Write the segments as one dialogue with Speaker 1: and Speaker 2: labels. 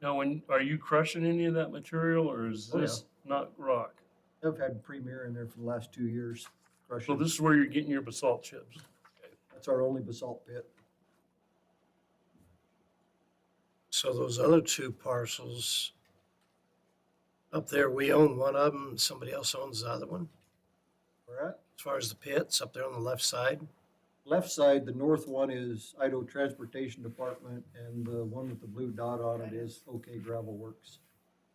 Speaker 1: Now, when, are you crushing any of that material or is
Speaker 2: Oh, yeah.
Speaker 1: this not rock?
Speaker 2: I've had Premier in there for the last two years.
Speaker 1: So
Speaker 2: Crushing.
Speaker 1: this is where you're getting your basalt chips.
Speaker 2: That's our only basalt pit.
Speaker 3: So those other two parcels up there, we own one of them, somebody else owns the other one.
Speaker 2: All right.
Speaker 3: As far as the pits up there on the left side,
Speaker 2: Left side, the north one is Idaho Transportation Department and the one with the blue dot on it is OK Gravel Works.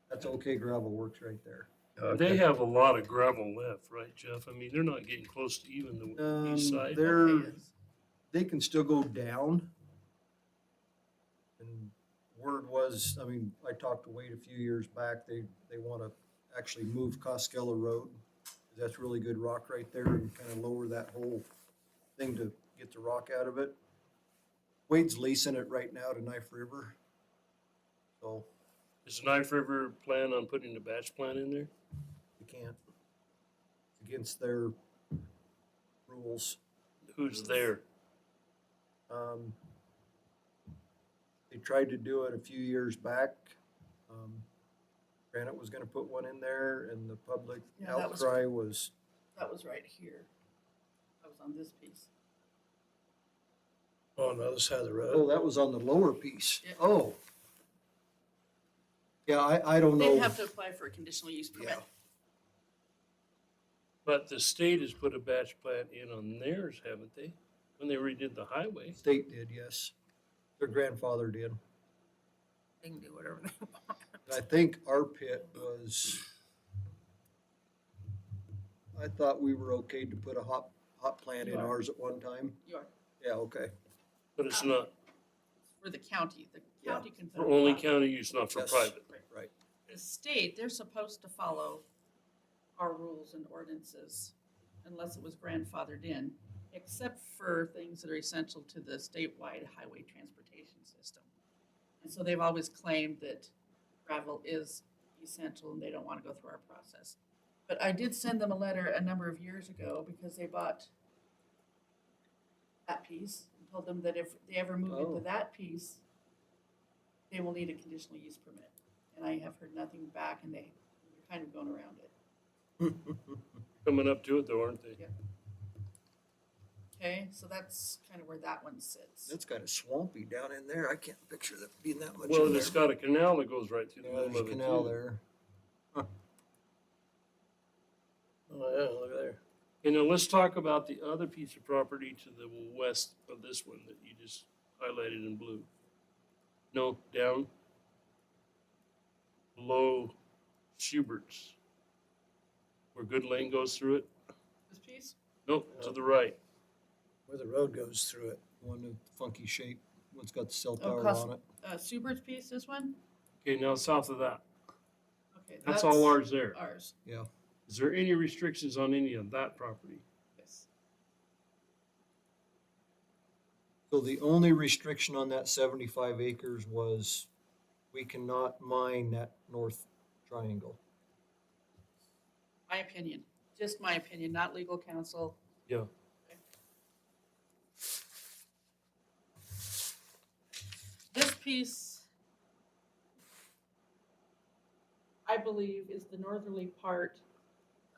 Speaker 2: That's OK Gravel Works right there.
Speaker 1: They have a lot of gravel left, right, Jeff? I mean, they're not getting close to even the
Speaker 2: Um,
Speaker 1: east side.
Speaker 2: they're, they can still go down. And word was, I mean, I talked to Wade a few years back, they, they want to actually move Coskella Road. That's really good rock right there and kind of lower that whole thing to get the rock out of it. Wade's leasing it right now to Knife River. So
Speaker 1: Is Knife River plan on putting the batch plant in there?
Speaker 2: we can't, it's against their rules.
Speaker 1: Who's there?
Speaker 2: Um, They tried to do it a few years back. Um, Granite was gonna put one in there and the public
Speaker 4: Yeah, that was-
Speaker 2: outcry was,
Speaker 4: That was right here. That was on this piece.
Speaker 3: on the other side of the
Speaker 2: oh,
Speaker 3: road.
Speaker 2: that was on the lower piece.
Speaker 4: Yeah.
Speaker 2: Oh. Yeah, I, I don't
Speaker 4: They'd
Speaker 2: know.
Speaker 4: have to apply for a conditional use permit.
Speaker 2: Yeah.
Speaker 1: But the state has put a batch plant in on theirs, haven't they? When they redid the highway.
Speaker 2: State did, yes. Their grandfather did.
Speaker 4: They can do whatever they want.
Speaker 2: And I think our pit was, I thought we were okay to put a hot, hot plant in
Speaker 1: Yeah.
Speaker 2: ours at one time.
Speaker 4: You are,
Speaker 2: Yeah, okay.
Speaker 1: But it's not
Speaker 4: for the county, the
Speaker 2: Yeah.
Speaker 4: county can.
Speaker 1: for
Speaker 4: put it
Speaker 1: only
Speaker 4: on.
Speaker 1: county use, not for
Speaker 2: Yes.
Speaker 1: private.
Speaker 4: The state, they're supposed to follow our rules and ordinances unless it was grandfathered in, except for things that are essential to the statewide highway transportation system. And so they've always claimed that gravel is essential and they don't want to go through our process. But I did send them a letter a number of years ago because they bought that piece and told them that if they ever move
Speaker 2: Oh.
Speaker 4: into that piece, they will need a conditional use permit. And I have heard nothing back and they, they're kind of going around it,
Speaker 1: Coming up to it though, aren't they?
Speaker 4: Yeah. okay? So that's kind of where that one sits.
Speaker 2: That's kind of swampy down in there. I can't picture that being that much.
Speaker 1: Well,
Speaker 2: in
Speaker 1: and it's
Speaker 2: there.
Speaker 1: got a canal that goes right through the
Speaker 2: Yeah,
Speaker 1: middle
Speaker 2: there's a
Speaker 1: of it
Speaker 2: canal
Speaker 1: too.
Speaker 2: there.
Speaker 3: Oh, yeah, look there.
Speaker 1: And now let's talk about the other piece of property to the west of this one that you just highlighted in blue. No, down. Below Schubert's. Where Good Lane goes through it.
Speaker 4: This piece?
Speaker 1: No, to the right.
Speaker 3: Where the road goes through it.
Speaker 2: One with funky shape. One's got the cell
Speaker 4: Oh,
Speaker 2: tower
Speaker 4: custom.
Speaker 2: on it.
Speaker 4: Uh, Subert's piece, this one?
Speaker 1: Okay, now south of that.
Speaker 4: Okay.
Speaker 1: That's all ours there.
Speaker 4: Ours,
Speaker 2: Yeah.
Speaker 1: Is there any restrictions on any of that property?
Speaker 4: yes.
Speaker 2: So the only restriction on that seventy-five acres was we cannot mine that north triangle.
Speaker 4: My opinion, just my opinion, not legal counsel.
Speaker 1: Yeah.
Speaker 4: This piece, I believe, is the northerly part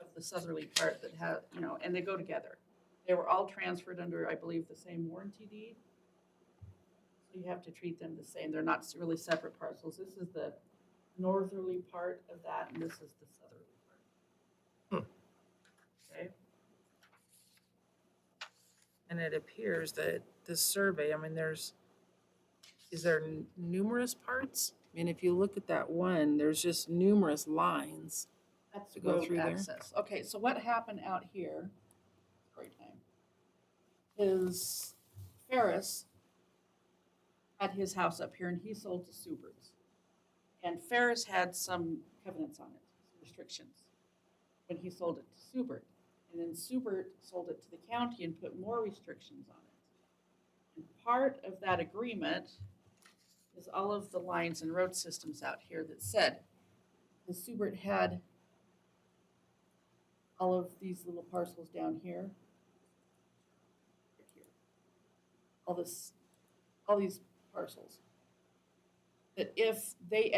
Speaker 4: of the southerly part that have, you know, and they go together. They were all transferred under, I believe, the same warranty deed. So you have to treat them the same. They're not really separate parcels. This is the northerly part of that, and this is the southerly part.
Speaker 5: Okay. And it appears that this survey, I mean, there's, is there n- numerous parts? I mean, if you look at that one, there's just numerous lines.
Speaker 4: That's
Speaker 5: To go
Speaker 4: road
Speaker 5: through there?
Speaker 4: access. Okay, so what happened out here, story time, is Ferris had his house up here and he sold to Suberts. And Ferris had some covenants on it, some restrictions, when he sold it to Subert. And then Subert sold it to the county and put more restrictions on it. And part of that agreement is all of the lines and road systems out here that said, the Subert had all of these little parcels down here. All this, all these parcels. That if they